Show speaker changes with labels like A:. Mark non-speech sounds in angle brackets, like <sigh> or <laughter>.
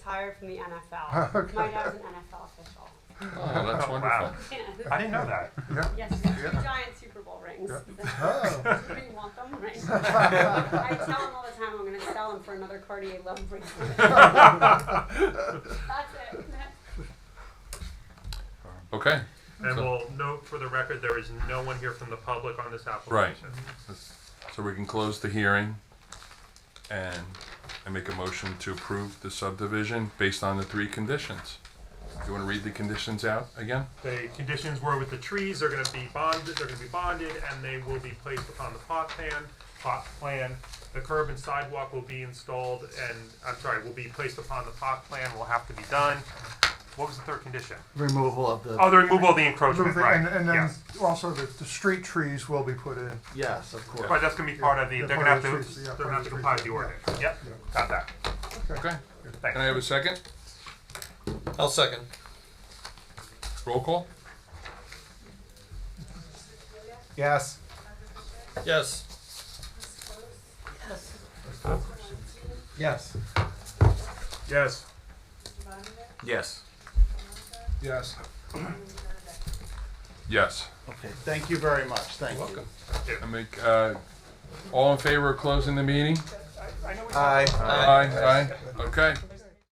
A: retired from the NFL.
B: <laughs> Okay.
A: My dad's an NFL official.
C: Oh, that's
B: Oh,
C: wonderful.
B: wow.
A: Yeah.
B: <laughs>
C: I didn't know <laughs> that.
A: Yes, two
B: Yeah.
A: giant Super Bowl rings. <laughs>
B: Oh.
A: Do you want <laughs> them? Right?
B: <laughs>
A: I tell him all the time I'm going to sell them for another Cartier love <laughs> bracelet. That's it.
C: Okay.
D: And
C: So-
D: we'll note for the record, there is no one here from the public on this application.
C: So we can close the hearing and I make a motion to approve the subdivision based on the three conditions. You want to read the conditions out again?
D: The conditions were with the trees, they're gonna be bonded, they're gonna be bonded, and they will be placed upon the plot plan, plot plan. The curb and sidewalk will be installed and, I'm sorry, will be placed upon the plot plan, will have to be done. What was the third condition?
E: removal of the.
D: Oh, the removal of the encroachment, right,
B: And, and then
D: yes.
B: also the, the street trees will be put in.
E: Yes, of course.
D: Right, that's gonna be part of the,
B: Yeah,
D: they're gonna
B: part
D: have
B: of
D: to,
B: the trees, yeah,
D: they're
B: part
D: gonna have
B: of
D: to
B: the
D: comply with
B: trees,
D: the
B: yeah.
D: ordinance, yep,
B: Yeah.
D: got that,
C: Okay.
D: thanks.
C: Can I have a second?
F: I'll second.
C: Roll call?
B: Yes.
F: Yes.
E: Yes.
D: Yes.
F: Yes.
B: Yes.
C: Yes.
E: Okay, thank you very much, thank you.
C: Welcome. I make, uh, all in favor of closing the meeting?
E: Aye.
C: Aye, aye. Okay.